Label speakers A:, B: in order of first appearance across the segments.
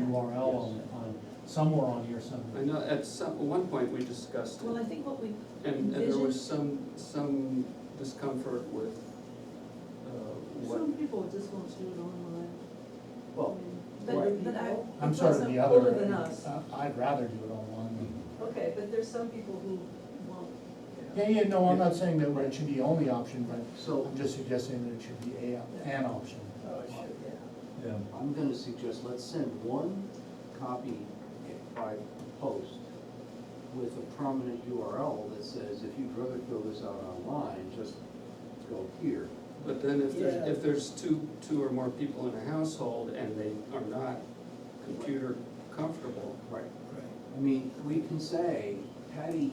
A: URL on, on, somewhere on here
B: I
A: somewhere.
B: know, at some, at one point, we discussed
C: Well,
B: it,
C: I think what we,
B: and, and there was some, some discomfort with, uh, what,
D: Some people just want to do it online.
E: Well,
C: but, but I.
A: I'm
C: it's
A: sorry,
C: also
A: the other,
C: Older than us,
A: uh, I'd rather do it online.
D: Okay, but there's some people who want.
A: Yeah, yeah, no, I'm not saying that it should be the only option, but
E: so
A: I'm just suggesting that it should be a, an option.
E: Oh,
F: Yeah,
E: I'm gonna suggest, let's send one copy by post with a prominent URL that says, if you'd rather fill this out online, just go here.
B: but then if there's,
G: Yeah.
B: if there's two, two or more people in a household and they are not computer comfortable,
E: Right. I mean, we can say Patty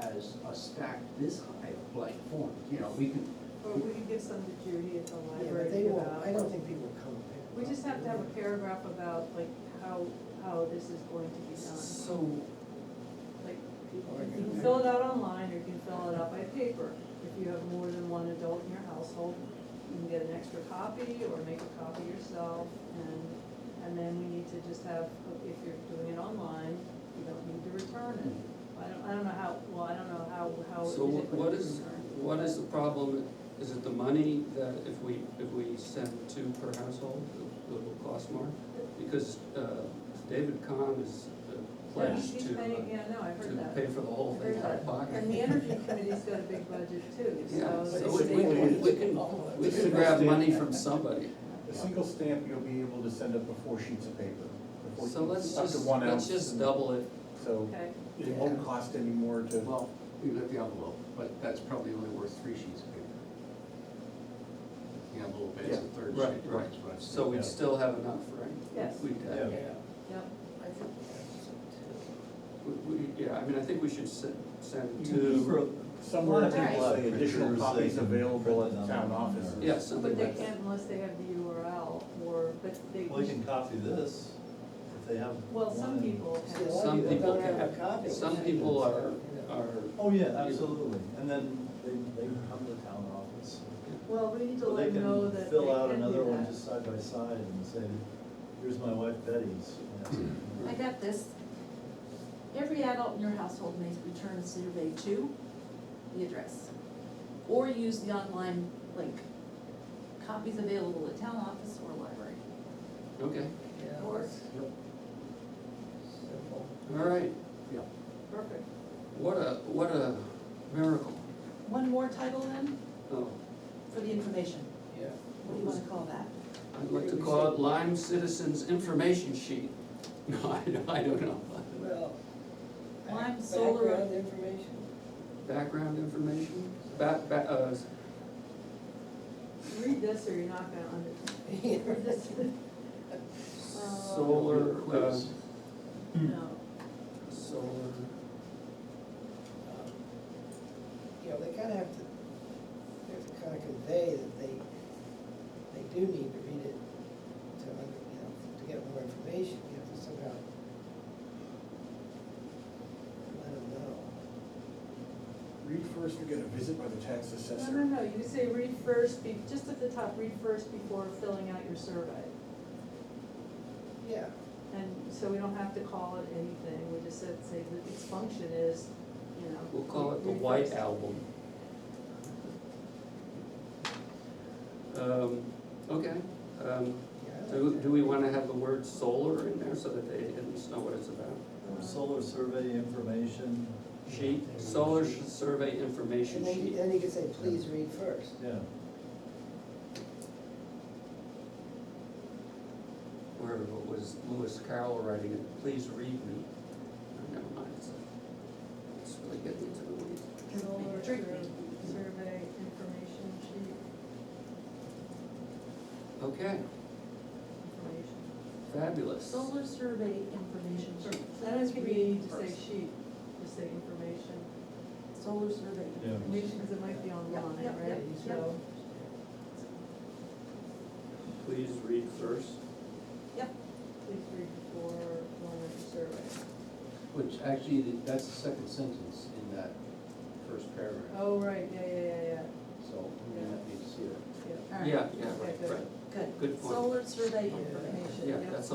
E: has a stack this high of blank forms, you know, we can,
D: Or we could give some to Judy at the
G: Yeah, but
D: library
G: they
D: to give
G: won't, I
D: out.
G: don't think people will come. pick it
D: We
G: up.
D: just have to have a paragraph about like how, how this is going to be done.
B: so,
D: Like,
G: People are
D: you
G: gonna-
D: can fill it out online or you can fill it out by paper. If you have more than one adult in your household, you can get an extra copy or make a copy yourself. And, and then we need to just have, if you're doing it online, you don't need to return it. I don't, I don't know how, well, I don't know how, how.
B: so
D: is
B: wha-
D: it
B: what
D: going to
B: is,
D: return?
B: what is the problem? Is it the money that if we, if we send two per household, it will cost more? Because, uh, David Kahn is uh,
D: Yeah,
B: pledged
D: he's
B: to, uh,
D: paying- Yeah, no, I
B: to
D: heard that.
B: pay for the whole
D: I
B: thing
D: heard
B: out
D: that.
B: of pocket.
D: And the energy committee's got a big budget too,
B: Yeah,
D: so.
B: so
D: they
B: we-
D: should
B: we,
D: be-
B: we- we can, we can grab money from somebody.
F: a single stamp, you'll be able to send up to four sheets of paper. the four
B: So let's
F: sheets, up to
B: just,
F: one
B: let's
F: ounce,
B: just
F: and
B: double it.
F: So
D: Okay,
F: it won't cost any more to,
E: well, we've got the envelope, but that's probably only worth three sheets of paper. The envelope is a
F: Yeah,
E: third sheet,
B: right,
E: right,
B: right.
E: that's what I'm saying.
B: So we'd
F: Yeah.
B: still have enough, right? uh,
D: Yes.
B: We'd have,
F: Yeah.
D: yep,
B: we, we, yeah, I mean, I think we should send,
D: Mm-hmm.
B: send
F: You
B: two,
F: somewhere
D: Alright.
F: people say additional
H: Printers, they
F: copies
H: can
F: available at
H: print them
F: town
H: on
F: office.
H: there.
B: yeah, something
D: but they
B: like that.
D: can't unless they have the URL or, but they,
H: Well, you can copy this, if they have.
D: well, some
H: one.
D: people
G: See, a
D: have.
G: lot of
B: Some people
G: don't have
B: can-
G: a copy.
B: Some people are, are,
H: Oh, yeah, absolutely, and then they, they can come to town office.
D: Well, we need to
H: Or
D: let
H: they
D: them know that they can
H: can
D: do that.
H: fill out another one just side by side and say, here's my wife Betty's. And
C: I got this. Every adult in your household may return a survey to the address, or use the online link. Copies available at town office or library.
B: okay,
G: Or-
B: all right,
D: Perfect.
B: what a, what a miracle.
C: One more title then,
B: Oh,
C: for the information.
G: Yeah.
C: What do you wanna call that?
B: I'd like to call it Lyme Citizens Information Sheet. No, I, don't- I don't know.
G: Well.
C: Lime solar-
G: Background information.
B: Background information, back, back, uh,
D: Read this or you're not gonna under, read this,
H: Hmm.
B: solar, uh,
E: Quiz.
D: no.
B: solar.
G: You know, they kinda have to, they have to kinda convey that they, they do need to read it to, under- you know, to get more information, you have to somehow let them know.
F: Read first, we get a visit by the tax
D: No,
F: assessor.
D: no, no, you say read first, be, just at the top, read first before filling out your survey.
G: Yeah,
D: And so we don't have to call it anything, we just said, say that its function is, you know.
B: We'll call it the White Album. Um, okay, um,
G: yeah. I
B: do,
G: like
B: do we wanna have the word solar in there so that they at least know what it's about?
H: Solar survey information,
B: Sheet, solar sh- survey
G: that.
B: information
G: And then, you-
B: sheet,
G: then you could say, please read first.
H: yeah,
B: where it was Lewis Carroll writing it, please read me. Oh, Never mind, it's, it's really getting into the weeds.
D: Solar
C: Drink me.
D: survey information sheet,
B: Okay,
D: information.
B: fabulous.
C: Solar survey information sheet.
D: I don't think we need to say
C: First.
D: sheet, just say information,
C: Solar survey.
H: yeah.
D: because it might be online,
C: yeah,
D: right?
C: yeah, yeah.
D: So,
B: Please read first.
D: please read before filling out your survey.
E: Which actually, the- that's the second sentence in that first paragraph,
D: Oh, right, yeah, yeah, yeah, yeah,
E: so we may not need to see that.
D: yeah.
C: All right,
B: Yeah, yeah,
D: Okay,
B: right,
D: good.
B: right,
C: Good.
B: good point.
C: Solar survey information.
B: Yeah,
D: yeah.
B: that's